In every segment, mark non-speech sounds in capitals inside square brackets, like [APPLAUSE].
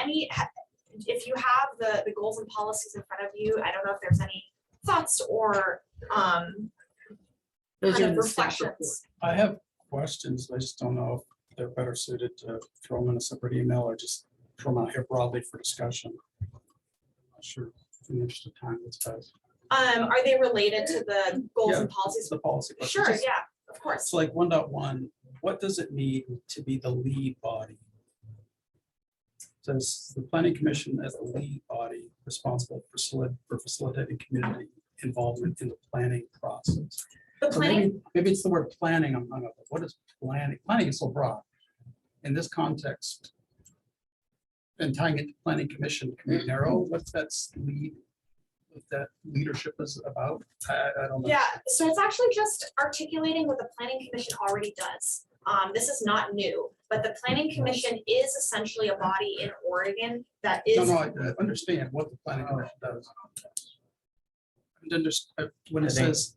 any, if you have the, the goals and policies in front of you, I don't know if there's any thoughts or, um, Those kind are of in the staff report. reflections. I have questions. I just don't know if they're better suited to throw them in a separate email or just throw them out here broadly for discussion. I'm Not Sure, in the interest of time, it's best. Um, are they related to the goals and policies? It's the policy. question. Sure, Just- yeah, of course. It's like one point one. what does it mean to be the lead body? Says the planning commission as the lead body responsible for solid, for facilitating community involvement in the planning process. The So planning, maybe- Maybe it's the word planning I'm hung up on. What is planning? Planning is so broad. In this context. And tying it to planning commission, can Mm-hmm. we narrow what that's lead? What that leadership is about? I, I don't know. yeah, so it's actually just articulating what the planning commission already does. Um, this is not new, but the planning commission is essentially a body in Oregon that No, is, no, I I understand what the planning Oh. commission does. And then just, uh, when it I think- says,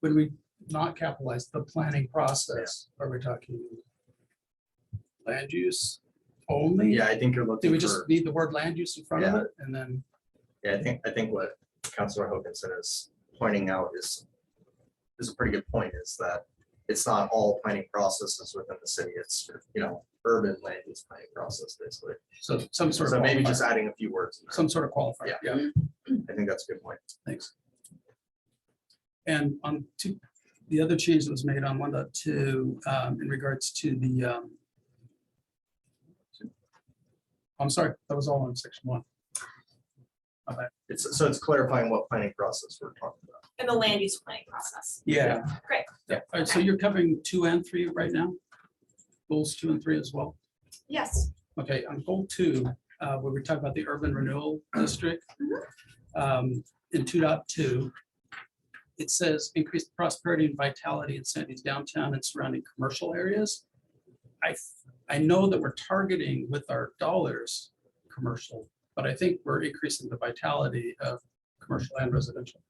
when we not capitalize the planning process, are we talking? Land use only? Yeah, I think you're Do we looking just for, need the word land use in front of it and then? yeah, I think, I think what Counselor Hoganson is pointing out is, is a pretty good point, is that it's not all planning processes within the city, it's, you know, urban land use planning process, basically. So some sort of. So maybe qualifier. just adding a few words, in there. Some sort of qualifier, Yeah. yeah, I think that's a good point. thanks. And on two, the other change that was made on one point two um, in regards to the, um, I'm sorry, that was all on section one. It's, so it's clarifying what planning process we're talking about. in the land use planning process. Yeah. Great. Yeah, all right, so you're covering two and three right now? Goals two and three as well? Yes, Okay, on goal two, uh, where we talk about the urban renewal district. um, In two dot two. It says increase prosperity and vitality in Sandy's downtown and surrounding commercial areas. I, I know that we're targeting with our dollars, commercial, but I think we're increasing the vitality of commercial and residential.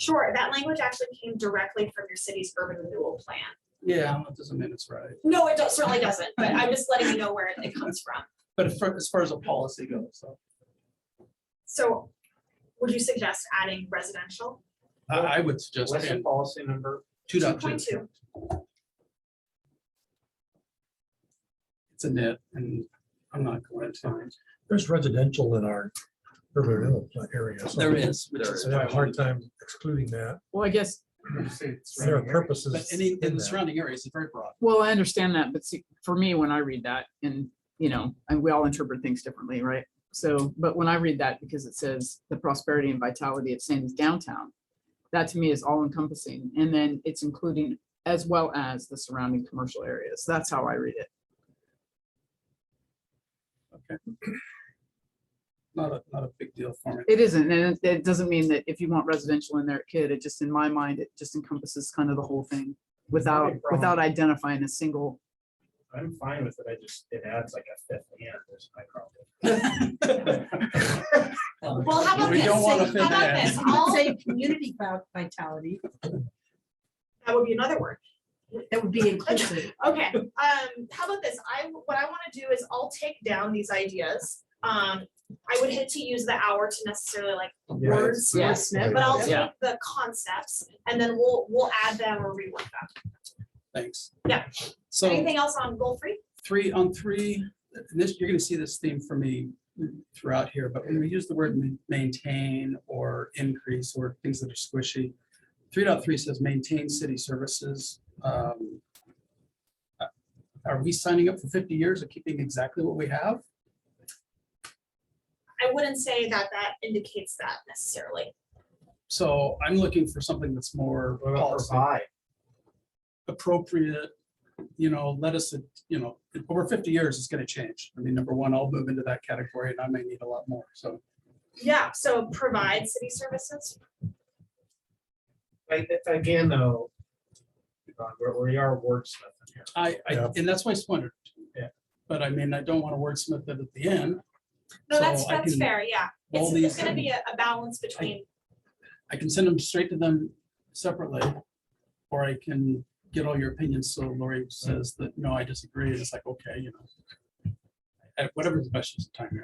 sure. That language actually came directly from your city's urban renewal plan. Yeah, that doesn't mean it's right, No, it do- certainly doesn't, but I'm just letting you know where it- it comes from. but for- as far as a policy goes, so. So would you suggest adding residential? I, I would suggest What's the in policy number? two dot two. 2.2. It's a nit, and I'm not going to. There's residential in our urban renewal pla- area. so There is, which There is I have why a hard time excluding that. Well, I guess, There are purposes. But any, in in the that. surrounding areas, it's very broad. well, I understand that, but see, for me, when I read that and, you know, and we all interpret things differently, right? So, but when I read that, because it says the prosperity and vitality of Sandy's downtown, that to me is all encompassing. And then it's including as well as the surrounding commercial areas. That's how I read it. Not a, not a big deal for me. It isn't, and it- it doesn't mean that if you want residential in there, it could. It just, in my mind, it just encompasses kind of the whole thing without, problem. without identifying a single I'm fine with it. I just, it adds like a fifth and there's my problem. [LAUGHS] Um, Well, how about We this? don't want to How about offend this? that. I'll- Say community vi- vitality, That would be another word. that would be inclusive. Okay, um, how about this? I, what I wanna do is I'll take down these ideas. Um, I would hate to use the hour to necessarily like words, Yeah. wordsmith, but I'll Yeah. take the concepts and then we'll, we'll add them or rework them. Thanks. Yeah. So Anything else on goal three? three on three, and this, you're gonna see this theme for me throughout here, but when we use the word ma- maintain or increase or things that are squishy. Three dot three says maintain city services. Um, uh, Are we signing up for fifty years of keeping exactly what we have? I wouldn't say that that indicates that necessarily. So I'm looking for something that's more What about policy provide? appropriate, you know, let us, you know, over fifty years, it's gonna change. I mean, number one, I'll move into that category and I may need a lot more, so. Yeah, so provide city services. Like, it's- again, though. uh, We're, we are wordsmithing here. I, I, Yeah. and that's why I wondered. Yeah. But I mean, I don't want to wordsmith it at the end. No, that's, So I that's can- fair, yeah. all It's, it's these- gonna be a, a balance between, I can send them straight to them separately. Or I can get all your opinions. So Lori says that, no, I disagree. It's like, okay, you know. at whatever the best use of time here.